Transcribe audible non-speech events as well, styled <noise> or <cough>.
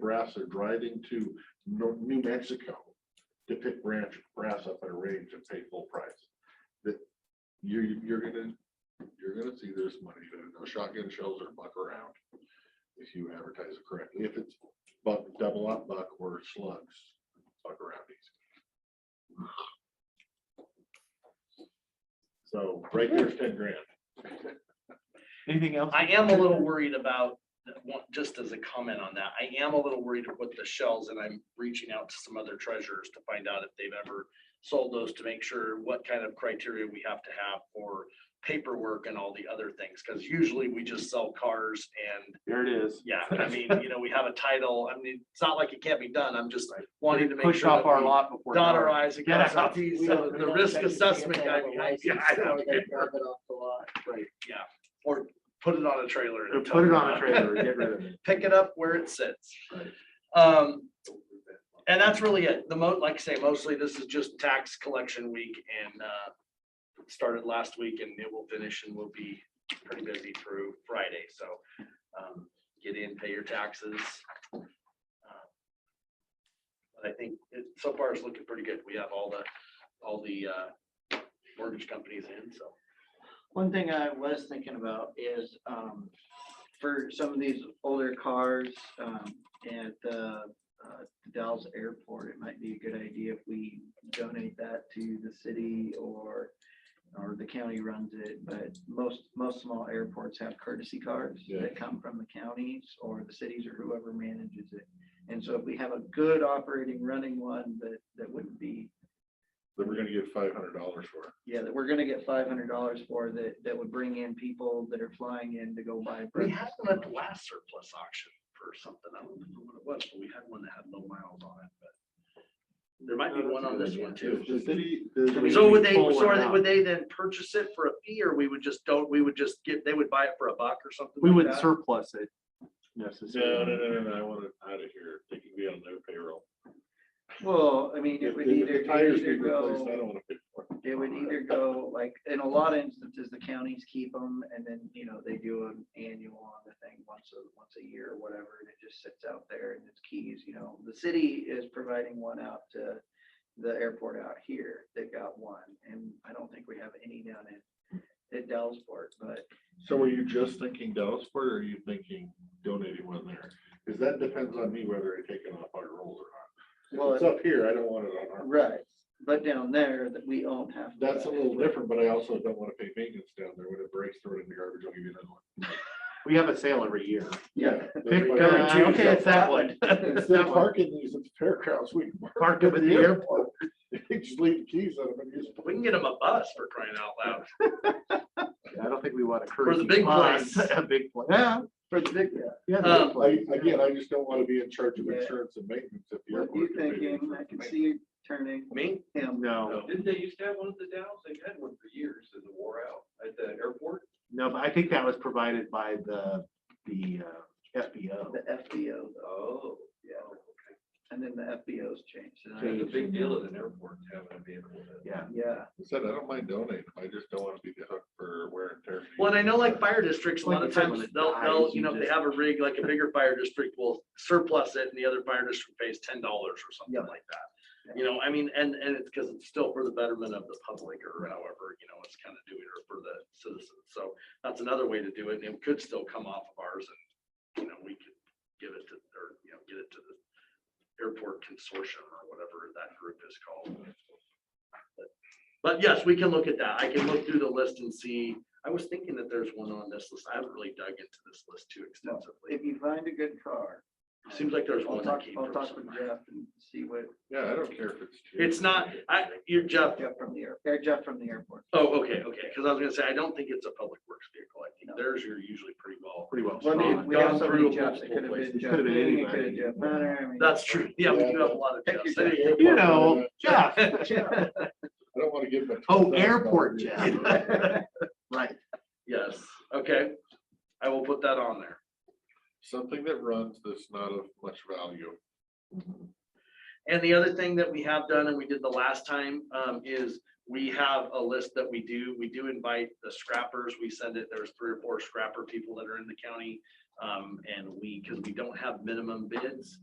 grass are driving to Nor- New Mexico to pick branch grass up at a range and pay full price. That you, you're gonna, you're gonna see there's money, there. No shotgun shells are buck around if you advertise it correctly. If it's buck, double up buck or slugs, buck around these. So right there's ten grand. Anything else? I am a little worried about, that one- just as a comment on that, I am a little worried with the shells and I'm reaching out to some other treasurers to find out if they've ever sold those to make sure what kind of criteria we have to have for paperwork and all the other things. Because usually we just sell cars and, There it is. yeah, I mean, you know, we have a title. I mean, it's not like it can't be done. I'm just wanting to make sure. Push off that our we lot before. Dot dark. our i's and Get cross our out. t's. We So don't- we the don't risk think you assessment can guy have a behind. license Yeah, I or don't <laughs> they care. drop it off the lot. Or put it on a trailer. Or and tow Put it <laughs> on a around. trailer, get rid of it. pick it up where it sits. Right. Um, and that's really it. The mo, like I say, mostly this is just tax collection week and, uh, it started last week and it will finish and will be pretty busy through Friday, so, um, get in, pay your taxes. Uh, But I think it, so far it's looking pretty good. We have all the, all the, uh, mortgage companies in, so. One thing I was thinking about is, um, for some of these older cars, um, at the, uh, Dallas Airport, it might be a good idea if we donate that to the city or, or the county runs it, but most, most small airports have courtesy cars Yeah. that come from the counties or the cities or whoever manages it. And so if we have a good operating running one, that, that wouldn't be Then we're gonna get five hundred dollars for it. yeah, that we're gonna get five hundred dollars for that, that would bring in people that are flying in to go buy. We breakfast. had one at the last surplus auction for something. I don't remember what it was, but we had one that had low miles on it, but. There might be one on this one too. The city. we So should would be they, pulling so out. would they then purchase it for a fee or we would just don't, we would just get, they would buy it for a buck or something? We like wouldn't that? surplus it No, no, necessarily. no, no, no, I want it out of here. They can be on their payroll. Well, I mean, If it would the- if the either, it would Tires either get replaced, I go, don't wanna pay for it. it would either go, like, in a lot of instances, the counties keep them and then, you know, they do an annual on the thing once a, once a year or whatever, and it just sits out there and it's keys, you know. The city is providing one out to the airport out here. They've got one, and I don't think we have any down in, at Dallasport, but So are you just thinking Dallasport or are you thinking donating one there? Cause that depends on me whether I take it off our rolls or Well, not. If it's up here, I don't want it on our, Right, but down there that we own half. of that's a that. little different, but I also don't wanna pay maintenance down there. When it breaks, throw it in the garbage, I'll give you another one. We have a sale every year. Yeah. Pick, But- uh, Okay, it's that one. <laughs> Instead of parking these at the fairgrounds, we. Park them at the airport. <laughs> Just leave the keys on them and use. We can get them a bus for crying out loud. I don't think we want to. encourage the big mines. place. <laughs> A big place. Yeah. For the big, yeah, the big Um, place. I- Again, I just don't wanna be in charge of Yeah. insurance and maintenance at the what airport. are you if they do thinking? I insurance can and see you turning Me? him. No, Didn't they used to have one at the Dallas? They've had one for years and it wore out at the airport. no, but I think that was provided by the, the uh, FBO. The FBO, Oh. yeah, and then the FBO's changed. and I- It's a big deal at an airport to have a vehicle. that- Yeah. Yeah, I said, I don't mind donating, I just don't wanna be the hook for wear and tear. Well, and I know like fire districts, a Like lot of you said, when times it they'll, they'll, dies, you you know, if they just- have a rig, like a bigger fire district will surplus it and the other fire district pays ten dollars or something Yeah. like that. You know, I mean, and, and it's because it's still for the betterment of the public or however, you know, it's kind of doing it for the citizens. So that's another way to do it and it could still come off of ours and, you know, we could give it to, or, you know, get it to the airport consortium or whatever that group is called. But- But yes, we can look at that. I can look through the list and see. I was thinking that there's one on this list. I haven't really dug into this list too extensively. if you find a good car. Seems like there's I'll one that talk, came I'll from talk with somewhere. Jeff and see what, Yeah, I don't care if it's. cheap. It's not, I, you're Jeff. Jeff from the air, or Jeff from the airport. Oh, okay, okay. Cause I was gonna say, I don't think it's a public works vehicle. I think theirs are usually pretty well. Pretty well. Well, I mean, spawned. we have so Gone many through Jeffs, multiple it could have places. been Jeff Could've been Manning, it could have anybody. Jeff Manor, I mean. That's true. Yeah, we do have a lot of Thank you, Jeffs. Anyway, You know, <laughs> Jeff. Yeah. I don't wanna give them. a Oh, $12,000 airport, bill. Jeff. Right. Yes, okay. I will put that on there. Something that runs that's not of much value. And the other thing that we have done and we did the last time um, is we have a list that we do, we do invite the scrappers. We send it, there's three or four scrapper people that are in the county. um, And we, because we don't have minimum bids,